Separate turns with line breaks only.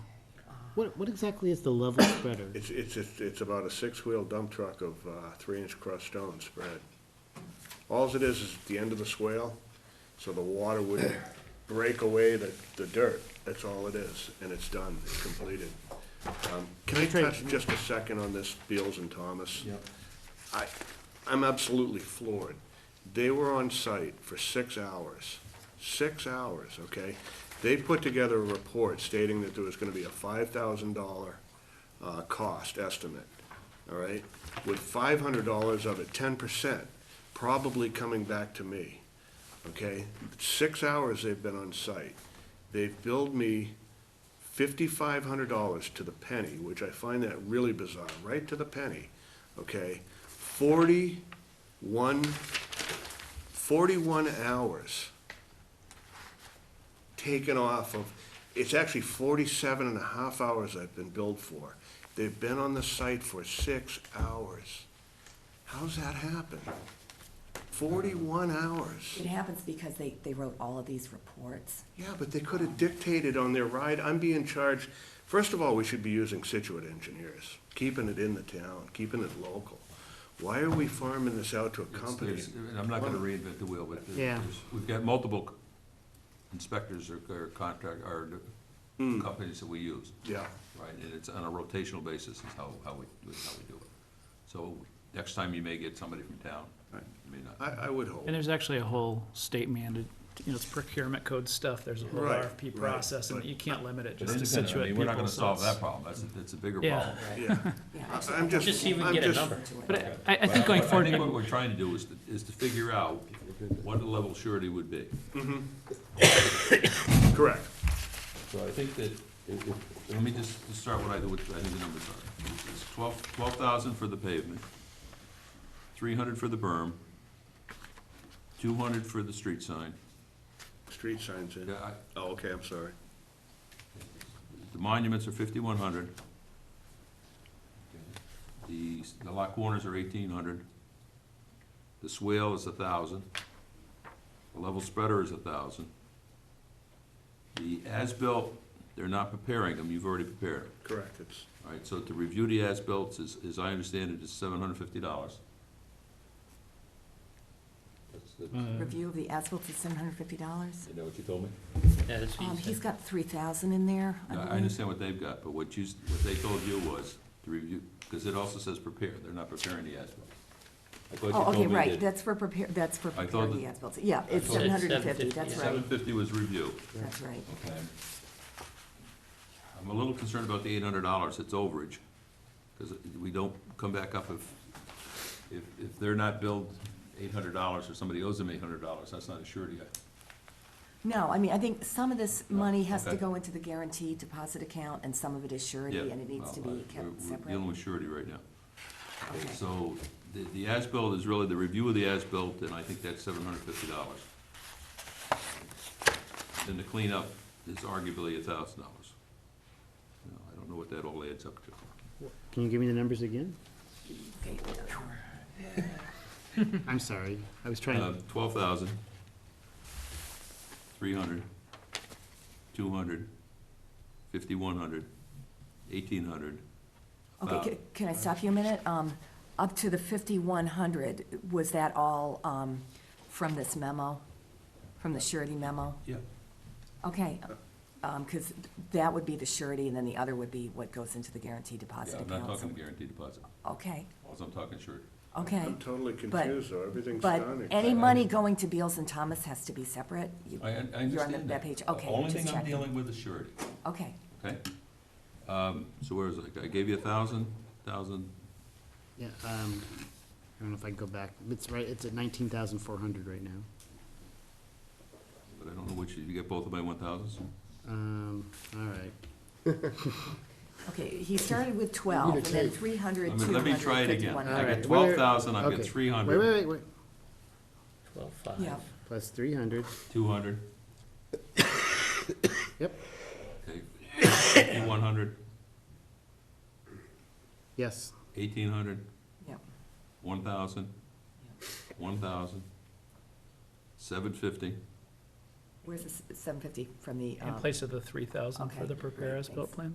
What, what exactly is the level spreader?
It's, it's, it's it's about a six-wheel dump truck of uh, three-inch crushed stone spread. Alls it is, is the end of the swale, so the water would break away the, the dirt. That's all it is, and it's done, it's completed. Um, Can I touch just a second on this Beals and Thomas? I, I'm absolutely floored. They were on site for six hours, six hours, okay? They put together a report stating that there was gonna be a five thousand dollar, uh, cost estimate, all right? With five hundred dollars of it, ten percent, probably coming back to me, okay? Six hours they've been on site. They've billed me fifty-five hundred dollars to the penny, which I find that really bizarre, right to the penny, okay? Forty-one, forty-one hours taken off of, it's actually forty-seven and a half hours I've been billed for. They've been on the site for six hours. How's that happen? Forty-one hours.
It happens because they, they wrote all of these reports.
Yeah, but they could have dictated on their ride, I'm being charged, first of all, we should be using Situate engineers, keeping it in the town, keeping it local. Why are we farming this out to a
It's-
company?
there's- And I'm not gonna reinvent the wheel, but. there's-
Yeah.
there's- We've got multiple inspectors or or contract, or
Hmm.
companies that we use,
Yeah,
right? And it's on a rotational basis is how, how we, how we do it. So next time you may get somebody from town, you may not.
I, I would hope.
And there's actually a whole state mandated, you know, it's procurement code stuff, there's a whole
Right,
RFP
right,
process, and
but-
you can't limit it
But
just to
independent, I
situate
mean,
people.
We're not gonna
so
solve
it's-
that problem, that's, that's a bigger
Yeah.
problem.
Yeah,
Yeah,
I-
actually,
I'm just,
Just even
I'm
get a
just,
number.
But I, I think going
But
forward,
I think
maybe-
what we're trying to do is, to- is to figure out what the level of surety would be.
correct,
So I think that, it- it- let me just just start what I, what I think the numbers are. It's twelve, twelve thousand for the pavement, three hundred for the berm, two hundred for the street sign.
street signs in.
Yeah, I-
Oh, okay, I'm sorry.
The monuments are fifty-one hundred. The, s- the lot corners are eighteen hundred. The swale is a thousand. The level spreader is a thousand. The as-built, they're not preparing them, you've already prepared them.
Correct, it's,
All right, so to review the as-built is, as I understand it, is seven hundred fifty dollars.
Review of the asphalt is seven hundred fifty dollars.
You know what you told me?
Yeah, that's what
Um,
he
he's
said.
got three thousand in there, Um, I
I
believe.
understand what they've got, but what you, s- what they told you was to review, because it also says prepare, they're not preparing the as-built. I thought you
Oh,
told
okay,
me
right,
that
that's for prepare, that's for
I thought
preparing the
that-
asphalt. Yeah, it's
thought
seven
that-
hundred and fifty, that's
seven
right,
fifty was review,
that's right.
okay? I'm a little concerned about the eight hundred dollars, it's overage, because we don't come back up if, if, if they're not billed eight hundred dollars or somebody owes them eight hundred dollars, that's not a surety.
No, I mean, I think some of this money has to
okay.
go into the guaranteed deposit account, and some of it is surety,
Yeah,
and it needs to
well,
be
I- we're-
kept
We're
separate.
dealing with surety right now.
Okay.
So the, the as-built is really the review of the as-built, and I think that's seven hundred fifty dollars. Then the cleanup is arguably a thousand dollars. I don't know what that all adds up to.
can you give me the numbers again?
Okay.
I'm sorry, I was trying,
Uh, twelve thousand, three hundred, two hundred, fifty-one hundred, eighteen hundred. Um,
Okay, ca- can I stop you a minute? Um, Up to the 5,100, was that all um, from this memo, from the surety memo?
Yeah.
Okay, because that would be the surety, and then the other would be what goes into the guaranteed deposit
Yeah, I'm not
account.
talking guaranteed deposit,
Okay,
also I'm talking surety.
okay.
I'm totally confused though, everything's
But
done.
any
except-
money going to Beals and Thomas has to be separate? You-
I, I understand that.
You're on that- that page, okay,
The only
just
thing I'm
checking.
dealing with is surety,
Okay,
okay? Um, so where is it? I gave you a thousand, thousand,
yeah, um, I don't know if I can go back, it's right, it's at nineteen thousand four hundred right now.
but I don't know which, you get both of my one thousands?
Um, all right,
okay, he started with 12, and then 300,
I mean, let me try
200,
it again. I
5,100.
get
Alright,
twelve
where-
thousand, I
okay.
get three
wait, wait,
hundred,
wait, wait,
Twelve five.
Yeah,
plus three hundred,
two hundred,
yep,
okay, fifty-one hundred,
yes,
eighteen hundred,
yeah.
one thousand, one thousand, seven fifty,
Where's the s- 750 from the?
in
um,
place of the three thousand
Okay,
for the prepare
great,
as-built
thanks.
plan?